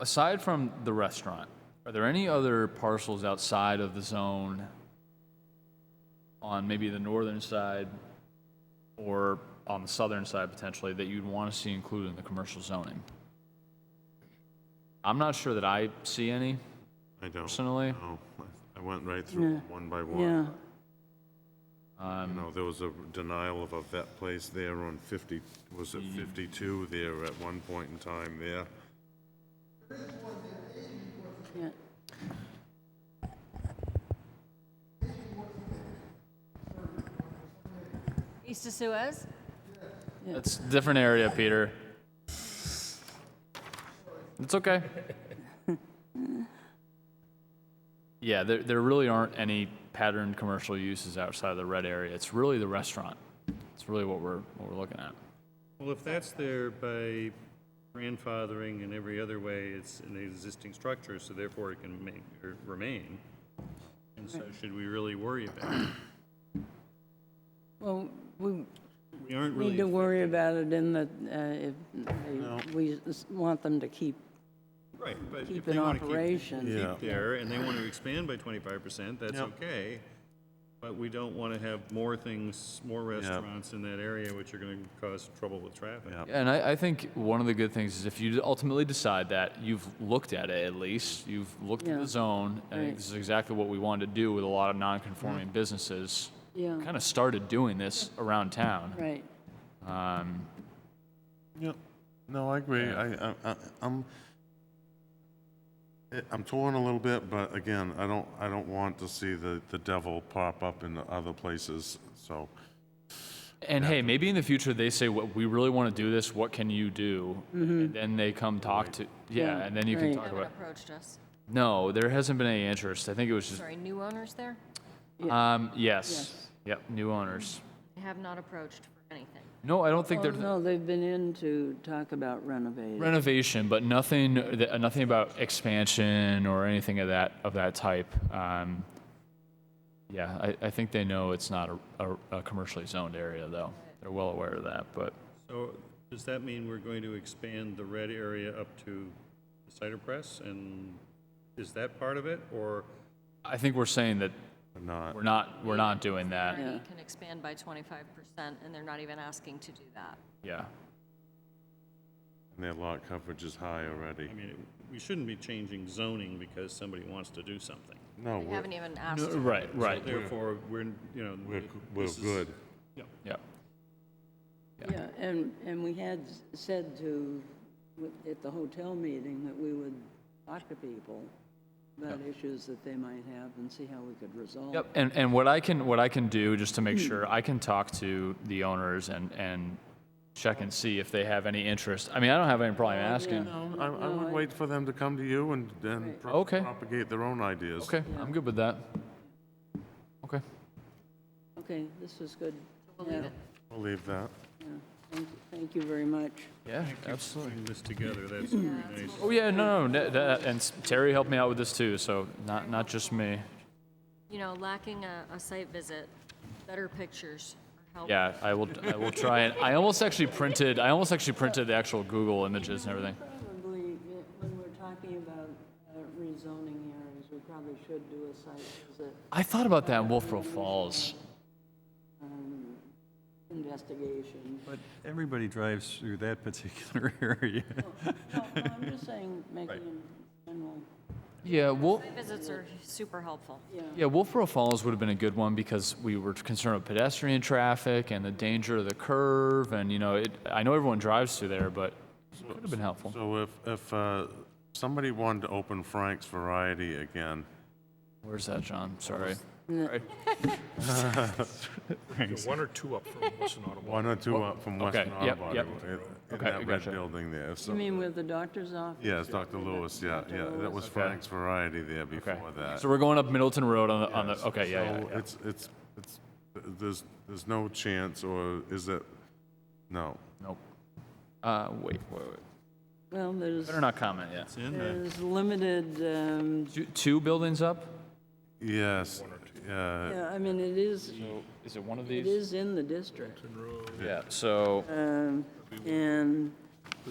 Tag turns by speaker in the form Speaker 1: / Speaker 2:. Speaker 1: aside from the restaurant, are there any other parcels outside of the zone on maybe the northern side or on the southern side potentially that you'd want to see included in the commercial zoning? I'm not sure that I see any
Speaker 2: I don't.
Speaker 1: personally.
Speaker 2: know. I went right through
Speaker 3: Yeah.
Speaker 2: one by
Speaker 3: Yeah,
Speaker 2: one. You know, there was a denial of a vet place there on 50, was
Speaker 4: Mm.
Speaker 2: it 52 there at one point in time there?
Speaker 3: yeah.
Speaker 5: East of Suez?
Speaker 1: It's a different area, Peter. It's okay. Yeah, there, there really aren't any patterned commercial uses outside of the red area. It's really the restaurant. It's really what we're, what we're looking at.
Speaker 4: Well, if that's there by grandfathering and every other way, it's an existing structure, so therefore it can make, or remain. And so should we really worry about it?
Speaker 3: Well, we
Speaker 4: We aren't
Speaker 3: need
Speaker 4: really,
Speaker 3: to worry about it in the, uh, if they- we s- want them to keep,
Speaker 4: right, but if
Speaker 3: keep
Speaker 4: they
Speaker 3: in
Speaker 4: want to keep,
Speaker 3: operation.
Speaker 2: Yeah.
Speaker 4: keep there and they want to expand by twenty-five percent, that's okay. But we don't want to have more things, more restaurants in that area, which are going to cause trouble with traffic.
Speaker 2: Yeah.
Speaker 1: And I, I think one of the good things is if you ultimately decide that you've looked at it at least, you've looked at
Speaker 3: Yeah.
Speaker 1: the zone, I think
Speaker 3: Right.
Speaker 1: this is exactly what we wanted to do with a lot of non-conforming businesses.
Speaker 3: Yeah.
Speaker 1: Kind of started doing this around town.
Speaker 3: Right,
Speaker 1: Um,
Speaker 2: Yep. No, I agree. I, I, I- I'm, I- I'm torn a little bit, but again, I don't, I don't want to see the, the devil pop up in other places, so.
Speaker 1: And hey, maybe in the future they say, "What we really want to do this. What can you do?" And then they come talk to yeah,
Speaker 3: Mm-hmm. Yeah,
Speaker 1: and then you
Speaker 3: right.
Speaker 1: can
Speaker 3: No
Speaker 1: talk
Speaker 5: No one
Speaker 1: about.
Speaker 5: approached us.
Speaker 1: No, there hasn't been any interest. I think it was just
Speaker 5: Sorry, new owners there?
Speaker 1: um, yes,
Speaker 3: Yes.
Speaker 1: yep, new owners.
Speaker 5: They have not approached for anything.
Speaker 1: No, I don't think
Speaker 3: Well,
Speaker 1: they're
Speaker 3: Oh, no, they've been in to talk about renovating.
Speaker 1: renovation, but nothing that, uh, nothing about expansion or anything of that of that type. Um, yeah, I, I think they know it's not a, a, a commercially zoned area though. They're well aware of that, but
Speaker 4: So does that mean we're going to expand the red area up to the cider press? And is that part of it, or?
Speaker 1: I think we're saying that
Speaker 2: Not,
Speaker 1: we're not we're not doing that.
Speaker 5: Already can expand by 25%, and they're not even asking to do that.
Speaker 1: Yeah.
Speaker 2: their lot coverage is high already.
Speaker 4: I mean, it- we shouldn't be changing zoning because somebody wants to do something.
Speaker 2: No,
Speaker 5: They
Speaker 2: we're,
Speaker 5: haven't even asked.
Speaker 1: No, Uh, right, right.
Speaker 4: Therefore, we're, you know.
Speaker 2: we're, we're
Speaker 4: this is-
Speaker 2: good.
Speaker 1: Yeah.
Speaker 3: Yeah, and, and we had s- said to, at the hotel meeting, that we would talk to people about issues that they might have and see how we could resolve.
Speaker 1: Yep. And and what I can what I can do just to make sure I can talk to the owners and and check and see if they have any interest. I mean, I don't have any problem asking.
Speaker 2: No, I, I would wait for them to come to you and, and pro-
Speaker 1: Okay.
Speaker 2: propagate their own ideas.
Speaker 1: Okay, I'm good with that. Okay.
Speaker 3: Okay, this is good.
Speaker 5: We'll leave
Speaker 3: Yeah,
Speaker 5: it.
Speaker 2: We'll leave that.
Speaker 3: Thank thank you very much.
Speaker 1: Yeah, absolutely.
Speaker 4: Putting this together, that's very nice.
Speaker 1: Oh yeah, no, no, no, that, and Terry helped me out with this too, so not not just me.
Speaker 5: You know, lacking a, a site visit, better pictures are helpful.
Speaker 1: Yeah, I will I will try and I almost actually printed I almost actually printed the actual Google images and everything.
Speaker 3: Probably, uh, when we're talking about uh, rezoning hearings, we probably should do a site visit
Speaker 1: I thought about that in Wolfboro Falls.
Speaker 3: investigation.
Speaker 6: But everybody drives through that particular area.
Speaker 3: No, no, I'm just saying, making a general,
Speaker 1: Yeah, Wolf.
Speaker 5: Site visits are super helpful.
Speaker 3: yeah.
Speaker 1: Yeah, Wolfboro Falls would have been a good one because we were concerned with pedestrian traffic and the danger of the curve, and you know, it, I know everyone drives through there, but it could have been helpful.
Speaker 2: So if, if uh, somebody wanted to open Frank's Variety again,
Speaker 1: Where's that, John? Sorry.
Speaker 7: One or two up from Western Ottawa.
Speaker 2: one or two up from Western
Speaker 1: Oh, okay, yep,
Speaker 2: Autobody.
Speaker 1: yep.
Speaker 2: in- In
Speaker 1: Okay,
Speaker 2: that red
Speaker 1: gotcha.
Speaker 2: building there,
Speaker 3: You
Speaker 2: so.
Speaker 3: mean with the doctor's office?
Speaker 2: Yes, Dr. Lewis, yeah, yeah, that was Frank's Variety there
Speaker 1: Okay.
Speaker 2: before that.
Speaker 1: So we're going up Middleton Road on the, on the, okay, yeah, yeah,
Speaker 2: So
Speaker 1: yeah.
Speaker 2: It's, it's, it's, there's, there's no chance, or is it, no.
Speaker 1: Nope. Uh, wait, wait, wait.
Speaker 3: Well, there's,
Speaker 1: Better not comment, yeah.
Speaker 3: there's limited, um,
Speaker 1: Two, two buildings up?
Speaker 2: Yes, yeah.
Speaker 3: yeah, I mean, it is,
Speaker 1: Is it one of
Speaker 3: it
Speaker 1: these?
Speaker 3: is in the district.
Speaker 1: Yeah, so,
Speaker 3: Um, And